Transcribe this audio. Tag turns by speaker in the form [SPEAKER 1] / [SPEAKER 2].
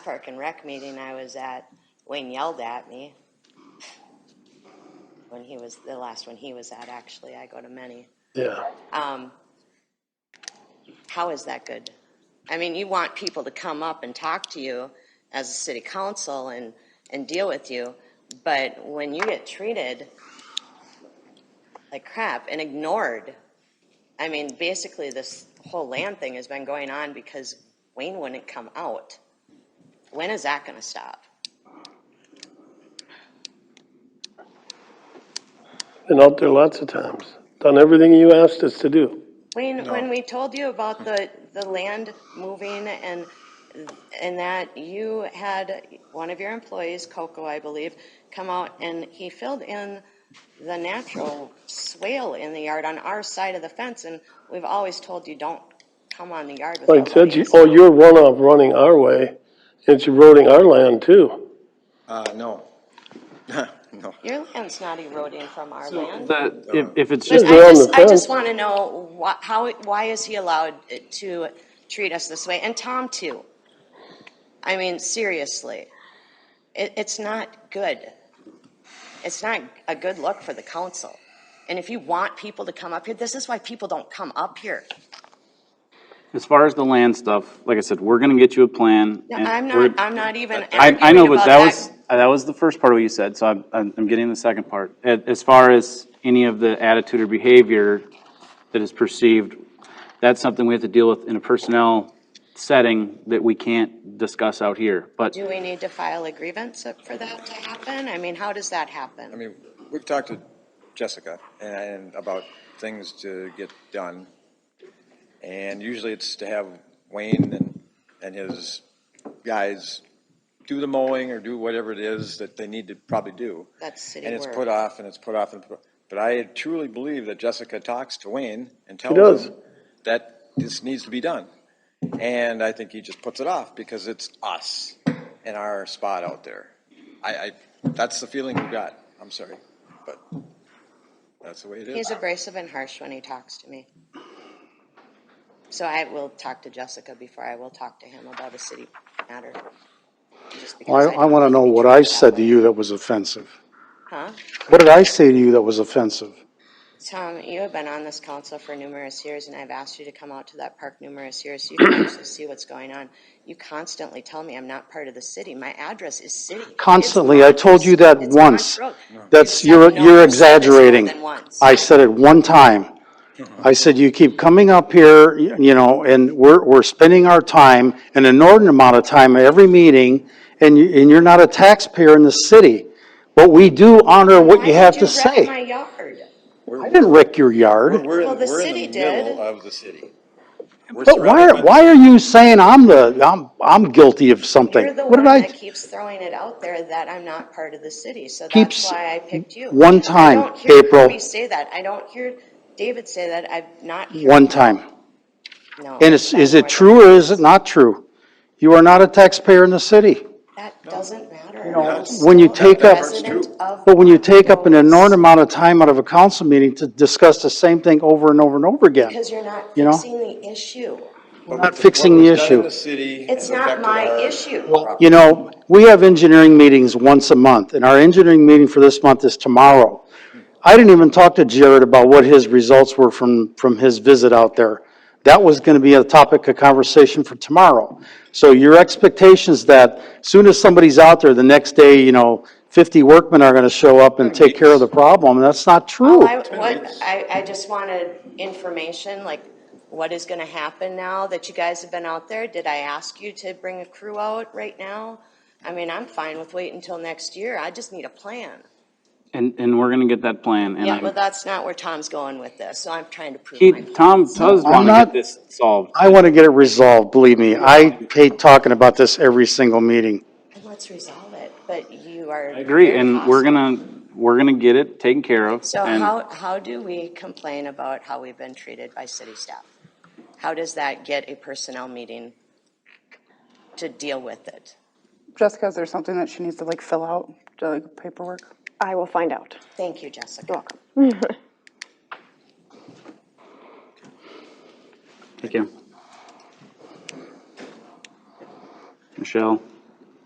[SPEAKER 1] Park and Rec meeting I was at, Wayne yelled at me. When he was, the last one he was at, actually, I go to many.
[SPEAKER 2] Yeah,
[SPEAKER 1] Um, how is that good? I mean, you want people to come up and talk to you as a city council and, and deal with you, but when you get treated like crap and ignored, I mean, basically, this whole land thing has been going on because Wayne wouldn't come out. When is that gonna stop?
[SPEAKER 2] been out there lots of times, done everything you asked us to do.
[SPEAKER 1] Wayne, when we told you about the, the land moving and, and that you had one of your employees, Coco, I believe, come out and he filled in the natural swale in the yard on our side of the fence, and we've always told you, don't come on the yard with
[SPEAKER 2] Like I said, you-
[SPEAKER 1] nobody.
[SPEAKER 2] oh, you're runoff running our way, it's eroding our land too.
[SPEAKER 3] Uh, no. No.
[SPEAKER 1] Your land's not eroding from our land.
[SPEAKER 4] The, if, if it's
[SPEAKER 1] But
[SPEAKER 4] just,
[SPEAKER 2] They're on
[SPEAKER 1] I
[SPEAKER 2] the
[SPEAKER 1] just, I
[SPEAKER 2] fence.
[SPEAKER 1] just want to know why, how, why is he allowed to treat us this way? And Tom too. I mean, seriously, it, it's not good. It's not a good look for the council. And if you want people to come up here, this is why people don't come up here.
[SPEAKER 4] as far as the land stuff, like I said, we're gonna get you a plan.
[SPEAKER 1] No,
[SPEAKER 4] and
[SPEAKER 1] I'm
[SPEAKER 4] we're-
[SPEAKER 1] not, I'm not even
[SPEAKER 4] I, I know,
[SPEAKER 1] arguing
[SPEAKER 4] but
[SPEAKER 1] about
[SPEAKER 4] that was,
[SPEAKER 1] that.
[SPEAKER 4] that was the first part of what you said, so I'm, I'm I'm getting the second part. A- As far as any of the attitude or behavior that is perceived, that's something we have to deal with in a personnel setting that we can't discuss out here. But
[SPEAKER 1] Do we need to file a grievance for that to happen? I mean, how does that
[SPEAKER 3] I
[SPEAKER 1] happen?
[SPEAKER 3] mean, we've talked to Jessica and about things to get done. And usually it's to have Wayne and, and his guys do the mowing or do whatever it is that they need to probably do.
[SPEAKER 1] That's city
[SPEAKER 3] And it's
[SPEAKER 1] work.
[SPEAKER 3] put off and it's put off and, put but I truly believe that Jessica talks to Wayne and tells
[SPEAKER 2] does.
[SPEAKER 3] him that this needs to be done. And I think he just puts it off because it's us and our spot out there. I, I, that's the feeling we got. I'm sorry, but that's the way it is.
[SPEAKER 1] He's abrasive and harsh when he talks to me. So I will talk to Jessica before I will talk to him about a city matter. Just because
[SPEAKER 5] Well, I, I
[SPEAKER 1] don't
[SPEAKER 5] want to know
[SPEAKER 1] be
[SPEAKER 5] what
[SPEAKER 1] treated
[SPEAKER 5] I
[SPEAKER 1] that
[SPEAKER 5] said to
[SPEAKER 1] way.
[SPEAKER 5] you that was offensive.
[SPEAKER 1] Huh?
[SPEAKER 5] What did I say to you that was offensive?
[SPEAKER 1] Tom, you have been on this council for numerous years, and I've asked you to come out to that park numerous years so you can actually see what's going on. You constantly tell me I'm not part of the city. My address is city. It's
[SPEAKER 5] Constantly, I
[SPEAKER 1] Montrose.
[SPEAKER 5] told you that
[SPEAKER 1] It's
[SPEAKER 5] once.
[SPEAKER 1] Montrose. You
[SPEAKER 5] That's,
[SPEAKER 1] said, "No,
[SPEAKER 5] you're,
[SPEAKER 1] I've said this
[SPEAKER 5] you're
[SPEAKER 1] more
[SPEAKER 5] exaggerating.
[SPEAKER 1] than once."
[SPEAKER 5] I said it one time. I said, you keep coming up here, y- you know, and we're, we're spending our time, an inordinate amount of time at every meeting, and you, and you're not a taxpayer in the city. But we do honor what
[SPEAKER 1] Why
[SPEAKER 5] you
[SPEAKER 1] did
[SPEAKER 5] have to
[SPEAKER 1] wreck My
[SPEAKER 5] say.
[SPEAKER 1] yard.
[SPEAKER 5] I didn't wreck your yard.
[SPEAKER 3] We're,
[SPEAKER 1] Well,
[SPEAKER 3] in-
[SPEAKER 1] the
[SPEAKER 3] we're
[SPEAKER 1] city
[SPEAKER 3] in the
[SPEAKER 1] did.
[SPEAKER 3] middle of the city. We're
[SPEAKER 5] But why,
[SPEAKER 3] surrounded by-
[SPEAKER 5] why are you saying I'm the, I'm, I'm guilty of something?
[SPEAKER 1] You're the
[SPEAKER 5] What
[SPEAKER 1] one
[SPEAKER 5] did I?
[SPEAKER 1] that keeps throwing it out there that I'm not part of the city, so that's
[SPEAKER 5] Keeps
[SPEAKER 1] why I picked you.
[SPEAKER 5] one
[SPEAKER 1] I
[SPEAKER 5] time,
[SPEAKER 1] don't hear
[SPEAKER 5] April.
[SPEAKER 1] Kirby say that, I don't hear David say that, I've not heard.
[SPEAKER 5] One time.
[SPEAKER 1] No,
[SPEAKER 5] And it's,
[SPEAKER 1] that
[SPEAKER 5] is
[SPEAKER 1] more
[SPEAKER 5] it
[SPEAKER 1] than-
[SPEAKER 5] true or is it not true? You are not a taxpayer in the city.
[SPEAKER 1] That doesn't matter. I'm
[SPEAKER 5] When you
[SPEAKER 1] still a
[SPEAKER 5] take up-
[SPEAKER 1] resident of
[SPEAKER 5] But when you take up an
[SPEAKER 1] Montrose.
[SPEAKER 5] inordinate amount of time out of a council meeting to discuss the same thing over and over and over again,
[SPEAKER 1] Because you're not
[SPEAKER 5] You know?
[SPEAKER 1] fixing the issue.
[SPEAKER 3] We're
[SPEAKER 5] not fixing the issue.
[SPEAKER 1] It's not my issue.
[SPEAKER 5] you know, we have engineering meetings once a month and our engineering meeting for this month is tomorrow. I didn't even talk to Jared about what his results were from, from his visit out there. That was gonna be a topic of conversation for tomorrow. So your expectations that soon as somebody's out there, the next day, you know, fifty workmen are gonna show up and take care of the problem, that's not true.
[SPEAKER 1] Well, I, what, I, I just wanted information, like, what is gonna happen now that you guys have been out there? Did I ask you to bring a crew out right now? I mean, I'm fine with waiting until next year, I just need a plan.
[SPEAKER 4] And, and we're gonna get that plan, and
[SPEAKER 1] Yeah, but
[SPEAKER 4] I,
[SPEAKER 1] that's not where Tom's going with this, so I'm trying to prove my
[SPEAKER 4] he,
[SPEAKER 1] point.
[SPEAKER 4] Tom does
[SPEAKER 5] I'm
[SPEAKER 4] wanna
[SPEAKER 5] not-
[SPEAKER 4] get this solved.
[SPEAKER 5] I want to get it resolved, believe me. I hate talking about this every single meeting.
[SPEAKER 1] And Let's resolve it, but you are.
[SPEAKER 4] I agree,
[SPEAKER 1] very
[SPEAKER 4] and we're
[SPEAKER 1] hostile.
[SPEAKER 4] gonna, we're gonna get it taken care of,
[SPEAKER 1] So
[SPEAKER 4] and.
[SPEAKER 1] how, how do we complain about how we've been treated by city staff? How does that get a personnel meeting to deal with it?
[SPEAKER 6] Jessica, is there something that she needs to like fill out, to, like paperwork?
[SPEAKER 7] I will find out.
[SPEAKER 1] Thank you, Jessica.
[SPEAKER 7] welcome.
[SPEAKER 4] Thank you. Michelle,